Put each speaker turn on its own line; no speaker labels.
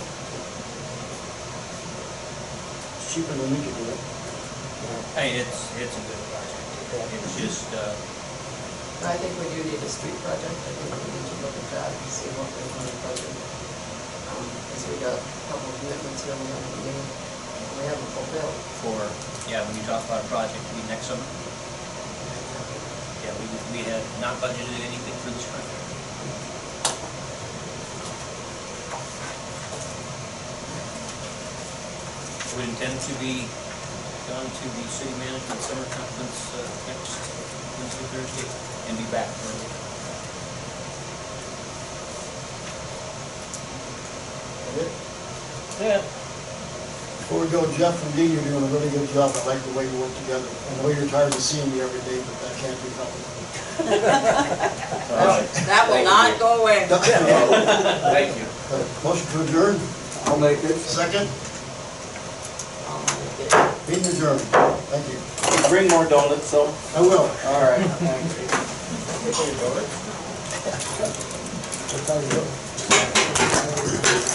it's cheaper than we could do it.
Hey, it's, it's a good project. It's just, uh,
I think we do need a street project, I think we need to look at that and see what we want to budget. Um, Because we got a couple of commitments here we haven't made, and we haven't fulfilled.
for, yeah, when you talk about a project, we next summer, yeah, we, we had not budgeted anything for this project. We intend to be gone to the city management summer conference uh, next Wednesday, Thursday, and be back for it. Yeah.
Before we go, Jeff and Dee, you're doing a really good job. I like the way you work together. I know you're tired of seeing me every day, but that can't be helped.
That will not go away.
Thank you.
Uh, Motion to adjourn,
I'll make it.
second, meeting adjourned. Thank you.
Bring more donuts, so.
I will.
All right, thanks.
That's how you do it.